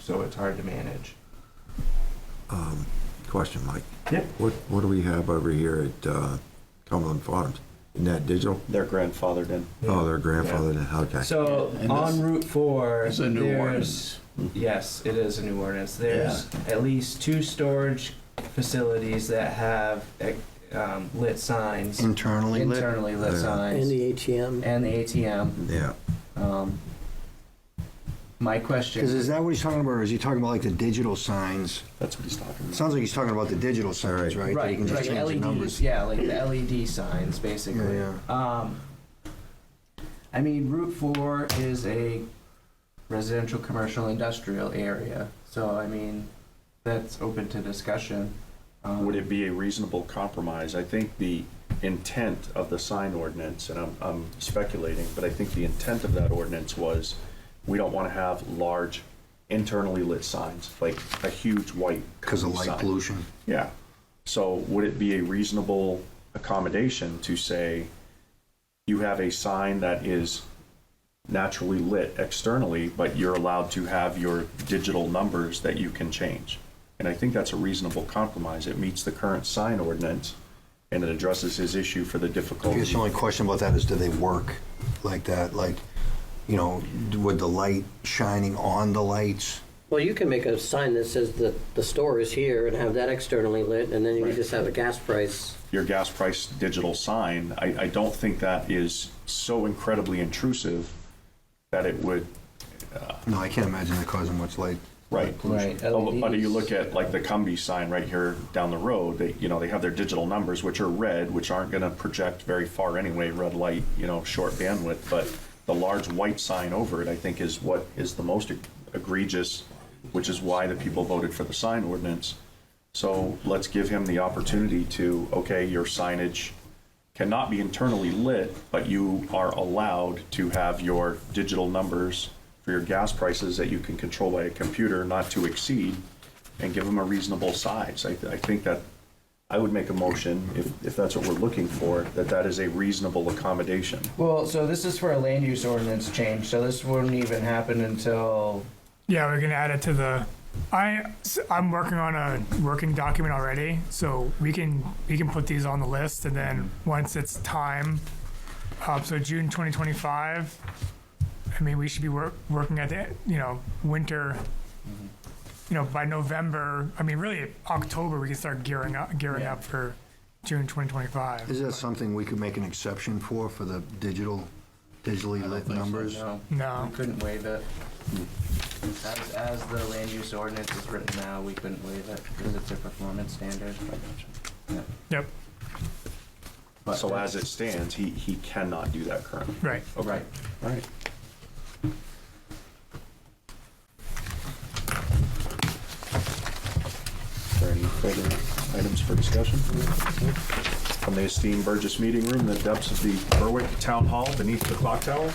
so it's hard to manage. Question, Mike. Yep. What, what do we have over here at uh, Cumberland Farms? Isn't that digital? They're grandfathered in. Oh, their grandfather, did- okay. So And on this- Route Four, It's a new there's, ordinance. yes, it is a new ordinance. There's at least two storage facilities that have eh, um, lit signs, Internally lit. internally lit Mm. Yeah. And signs, the E ATM. and the ATM. Yeah, Um, my Because question, is that what he's talking about, or is he talking about like the digital signs? That's what he's talking It about. sounds like he's talking about the digital signs, Alright. right? that you right, can just right, E change the LEDs, numbers. yeah, like the LED signs, basically. Yeah, Um, I mean, Route Four is a residential, commercial, industrial area, so I mean, that's open to discussion. Um, Would it be a reasonable compromise? I think the intent of the sign ordinance, and I'm, I'm speculating, but I think the intent of that ordinance was, we don't want to have large internally lit signs, like a huge white. Because of cone light sign. pollution. Yeah. So would it be a reasonable accommodation to say you have a sign that is naturally lit externally, but you're allowed to have your digital numbers that you can change? And I think that's a reasonable compromise. It meets the current sign ordinance and it addresses his issue for the I difficulty. guess the only question about that is, do they work like that? Like, you know, with the light shining on the lights? Well, you can make a sign that says that the store is here and have that externally lit, and then you Right. can just have a gas price. your gas price digital sign, I, I don't think that is so incredibly intrusive that it would No, I can't imagine that causing much light. Right. Right, Oh, But but you LEDs. look at like the Cumbie sign right here down the road, they, you know, they have their digital numbers, which are red, which aren't gonna project very far anyway, red light, you know, short bandwidth, but the large white sign over it, I think is what is the most egregious, which is why the people voted for the sign ordinance. So let's give him the opportunity to, okay, your signage cannot be internally lit, but you are allowed to have your digital numbers for your gas prices that you can control by a computer not to exceed, and give them a reasonable size. I, I think that, I would make a motion, if, if that's what we're looking for, that that is a reasonable accommodation. Well, so this is for a land use ordinance change, so this wouldn't even happen until, Yeah, we're gonna add it to the. I am working on a working document already, so we can we can put these on the list, and then once it's time, uh, so June 2025. I mean, we should be work, working at the you know winter. You know, by November, I mean really October, we can start gearing up gearing Yeah. up for June 2025. Is that something we could make an exception for, for the digital, digitally lit numbers? Hmm. no, No. we couldn't waive it. As, as the land use ordinance is written now, we couldn't waive it because it's a performance standard. Yeah. Yep. So as it stands, he, he cannot do that currently. Right. Right. All right. Are there any further items for discussion? From the esteemed Burgess Meeting Room, in the depths of the Berwick Town Hall beneath the clock tower,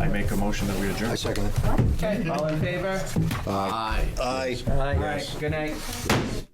I make a motion that we adjourn. I second it. Okay, all in favor? Aye. All right, good night.